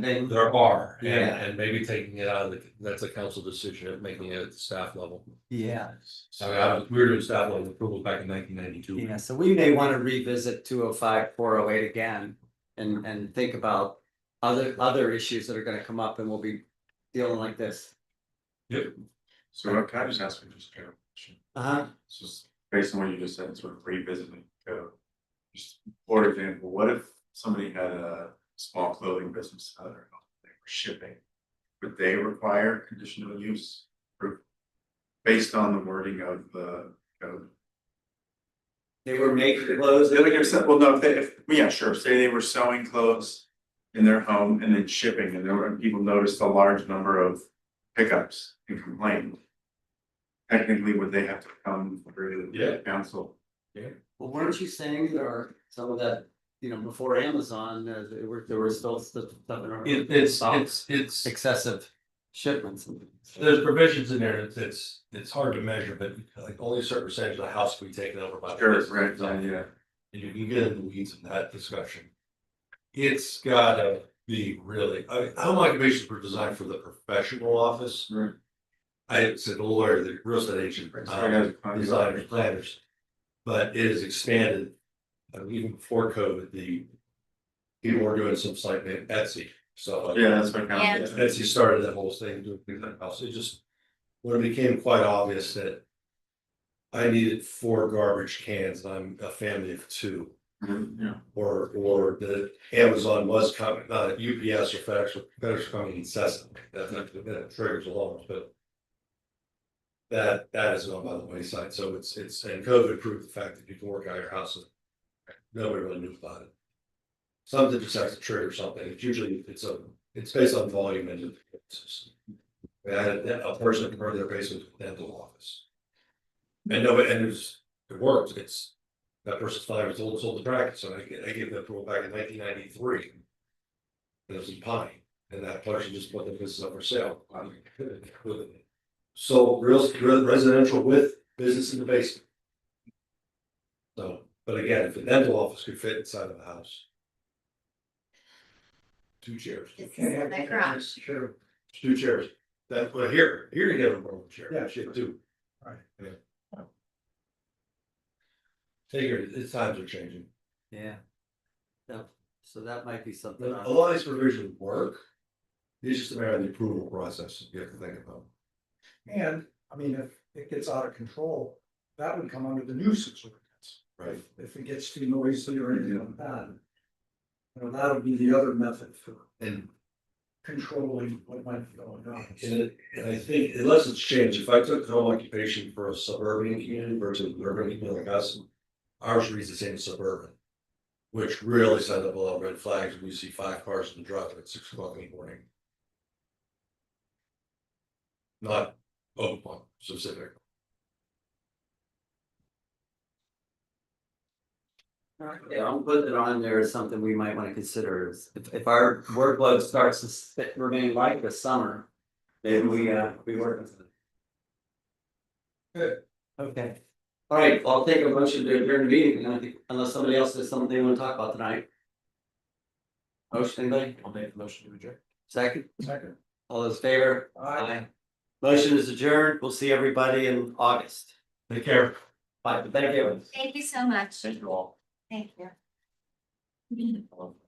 They- There are, and, Yeah. and maybe taking it out of the, that's a council decision, making it at the staff level. Yes. So uh, I was, we were doing staff level approval back in nineteen ninety-two. Yeah, so we may want to revisit 205, 408 again and, and think about other, other issues that are gonna come up and we'll be dealing like this. So uh, can I just ask you just a general question? Uh-huh. It's just based on what you just said, sort of revisiting code. Just for example, what if somebody had a small clothing business out there, they were shipping? Would they require conditional use proof based on the wording of the code? They were making clothes. They're like, if so- well, no, if they, if, yeah, sure, say they were sewing clothes in their home and then shipping, and there were, people noticed a large number of pickups and complained. Technically, would they have to come through Yeah. the council? Well, weren't you saying there are some of that, you know, before Amazon, uh, there were, there were still stuff. stuff in our- It, it's, it's, it's, Excessive shipments. and things. there's provisions in there, it's, it's, it's hard to measure, but like only a certain percentage of the house can be taken over by. the Sure, business. right, yeah, And you can get in the weeds in that discussion. It's gotta be really, I, mean, home occupations were designed for the professional office. right. I said the lawyer, the real estate agent, Right, so I um, gotta- I gotta- designers, planners. But it is expanded, uh, even before COVID, the. People were doing some site named Etsy, so. like, Yeah, that's what Yeah. kind of. Etsy started that whole thing, doing things like house, it just, when it became quite obvious that. I needed four garbage cans, and I'm a family of two Mhm, Yeah. or or the Amazon was coming, uh, UPS or FedEx, or FedEx coming incessantly, that that triggers alarms, but. That that is gone by the wayside, so it's it's, and COVID proved the fact that you can work out of your house. and Nobody really knew about it. Something just has to trigger something, it's usually, it's a, it's based on volume and. it's- I had a a person convert their basement to a dental office. And nobody, and it was, it worked, it's that person's five years old, sold the practice, so I gave, I gave that rule back in nineteen ninety-three. It was in Pine, and that person just put the business up for sale. I mean, So real, re- residential with business in the basement. So, but again, if the dental office could fit inside of the house. Two chairs, It's in the garage. Sure. two chairs, that, well, here, here you have a roll chair. Yeah, Shit, too. Right. Yeah. Take your, it's times are changing. Yeah. Yep. So that might be something. A lot of these provisions work. It's just a matter of the approval process you have to think about. And, I mean, if it gets out of control, that would come under the nuisance ordinance. Right. If it gets too noisy or anything like that. You know, that would be the other method for And, controlling what might be going on. and it- and I think unless it's changed, if I took home occupation for a suburban community versus an urban community like us, ours reads the same as suburban. Which really sends up a lot of red flags when you see five cars in the driveway at six o'clock in the morning. Not Oakmont specific. Yeah, I'll put it on there as something we might want to consider is if, if our workload starts to st- remain light this summer. Then we, uh, we work on something. Good. Okay. All right, I'll take a motion to adjourn the meeting and I think- unless somebody else has something they want to talk about tonight. Motion, anybody? I'll make the motion to adjourn. Second, Second. all those in favor? I- Motion is adjourned. We'll see everybody in August. Take care. Bye, thank you. Thank you so much. Thank you all. Thank you. I love-